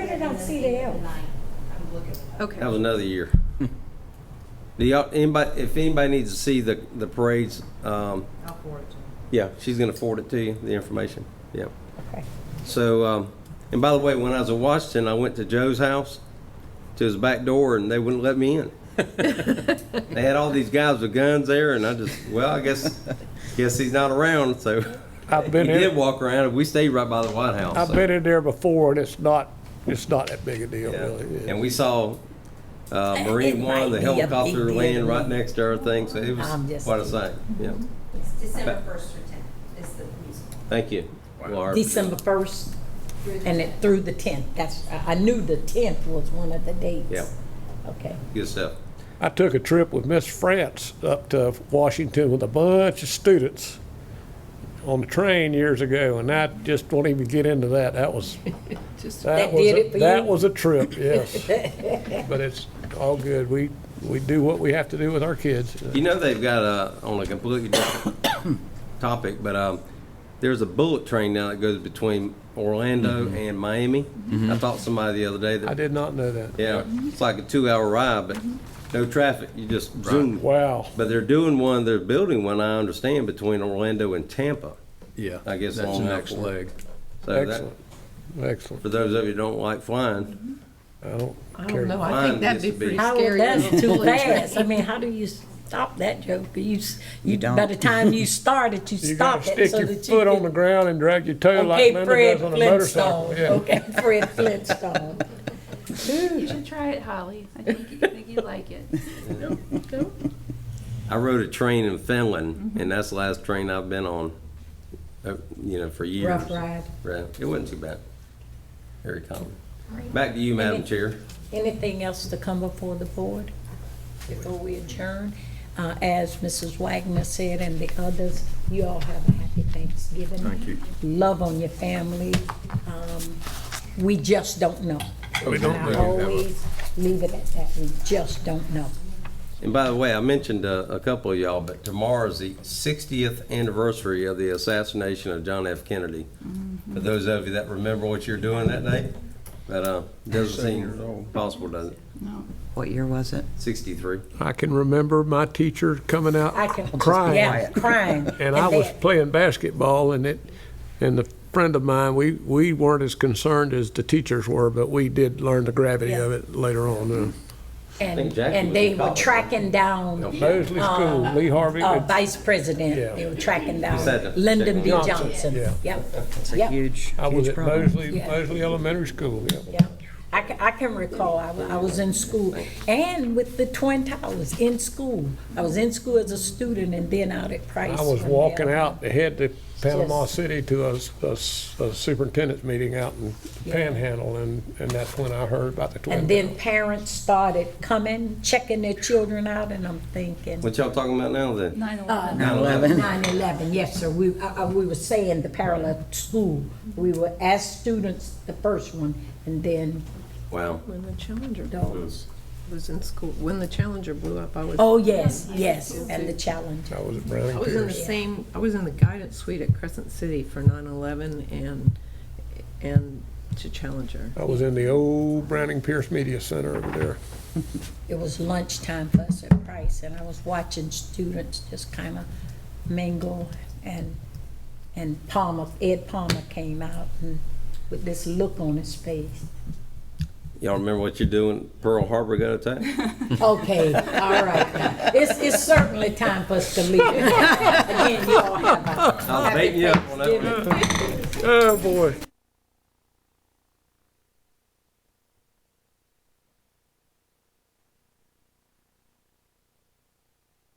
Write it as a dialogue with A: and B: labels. A: don't see the L.
B: I'm looking.
C: Okay.
D: That was another year. Do y'all, anybody, if anybody needs to see the, the parades, um,
B: I'll forward it to him.
D: yeah, she's gonna forward it to you, the information, yeah.
A: Okay.
D: So, um, and by the way, when I was in Washington, I went to Joe's house, to his back door, and they wouldn't let me in. They had all these guys with guns there, and I just, well, I guess, guess he's not around, so.
E: I've
D: He
E: been
D: did
E: in,
D: walk around, and we stayed right by the White House.
E: I've
D: so-
E: been in there before, and it's not, it's not that big a deal,
D: Yeah.
E: really.
D: And we saw uh, Marine One, the
A: might be a big
D: helicopter
A: deal.
D: land right next to our thing, so it was
A: I'm just
D: quite a sight. Yeah,
B: It's December first through tenth, It's the musical.
D: thank you. Laura.
A: December first, and it through the tenth, that's, I I knew the tenth was one of the dates.
D: Yeah.
A: Okay.
D: Good stuff.
E: I took a trip with Miss France up to Washington with a bunch of students on the train years ago, and I just won't even get into that. That was, that
A: That
E: was,
A: did
E: a-
A: it for
E: that
A: you?
E: was a trip, yes. But it's all good. We, we do what we have to do with our kids.
D: You know, they've got a, on a completely different topic, but um, there's a bullet train now that goes between Orlando and Miami. I thought somebody the other day
E: Mm-hmm. I
D: that,
E: did not know that.
D: yeah, it's like a two-hour ride, but
A: Mm-hmm.
D: no traffic. You just zoom.
E: Wow.
D: But they're doing one, they're building one, I understand, between Orlando and Tampa.
F: Yeah.
D: I guess
F: That's
D: long
F: the
D: enough
F: next
D: for it.
F: leg.
D: So that,
E: Excellent. Excellent.
D: For those of you who don't like flying,
E: I don't
C: I
E: care.
C: don't know,
D: Mine
C: I think that'd be
D: used to be-
C: pretty
A: How,
C: scary.
A: that's too
C: Bullet train.
A: fast, I mean, how do you stop that joke? You, s- you,
F: don't.
A: by the time you start it, you
E: You gotta
A: stop it
E: stick
A: so
E: your
A: that
E: foot on the
A: you can.
E: ground and drag your toe
A: Okay,
E: like Linda
A: Fred
E: does on a motorcycle.
A: Flintstone,
E: Yeah.
A: okay, Fred Flintstone.
G: You should try it, Holly. I think, you- I think you'd like it.
D: I rode a train in
H: Mm-hmm.
D: Finland, and that's the last train I've been on, uh, you know, for years.
A: Rough ride.
D: Right. It wasn't too bad. Very calm. Back to you, Madam Chair.
A: Anything else to come before the board before we adjourn? Uh, As Mrs. Wagner said and the others, you all have a happy Thanksgiving. Thank you. Love on your family. Um, We just don't know.
F: We don't
A: And I
F: know.
A: always leave it at that, we just don't know.
D: And by the way, I mentioned uh, a couple of y'all, but tomorrow's the 60th anniversary of the assassination of John F. Kennedy.
H: Mm-hmm.
D: For those of you that remember what you're doing that day, that uh, doesn't seem possible, does it?
H: What year was it?
D: 63.
E: I can remember my teacher coming out
A: I can.
E: crying.
A: Yeah, crying.
E: And I was
A: that-
E: playing basketball and it, and the friend of mine, we, we weren't as concerned as the teachers were, but we did learn the gravity of it later on. uh.
D: think
A: And,
D: Jackie was in
A: and they were
D: college.
A: tracking down.
E: uh, Mosley School, Lee Harvey.
A: uh,
E: it's-
A: Vice President,
E: Yeah.
A: they were tracking
D: said
A: down
D: that.
A: Lyndon B.
E: Johnson,
A: Johnson.
E: yeah.
A: Yep,
H: It's a
A: yep,
H: huge,
E: I was
H: huge
E: at
H: problem.
E: Mosley,
A: Yeah.
E: Mosley Elementary School, yeah.
A: yep. I can, I can recall, I, wa- I was in school, and with the Twin Towers, in school. I was in school as a student and then out at Price.
E: I was
A: when
E: walking
A: they-
E: out to head to Panama
A: Yes.
E: City to a, a- a superintendent's meeting out in Panhandle and, and that's when I heard about the Twin
A: And
E: Towers.
A: then parents started coming, checking their children out, and I'm thinking.
D: What y'all talking about now then?
G: Nine
A: Uh,
G: eleven.
D: Nine eleven.
A: 9/11, yes, sir. We, uh, uh, we were saying the parallel school. We were as students, the first one, and then,
D: Wow.
I: When the Challenger was, was in school, when the Challenger blew up, I was, I
A: oh, yes, yes, and the challenge.
E: I was at Browning
I: was in the
E: Pierce.
I: same, I was in the guidance suite at Crescent City for 9/11 and, and to Challenger.
E: I was in the old Browning Pierce Media Center over there.
A: It was lunchtime for us at Price, and I was watching students just kind of mingle, and, and Palmer, Ed Palmer came out and with this look on his face.
D: Y'all remember what you're doing? Pearl Harbor got attacked?
A: Okay, all right. now. It's, it's certainly time for us to leave. Again, you all have a Oh,
D: I was baiting you up on that one.
E: Oh, boy.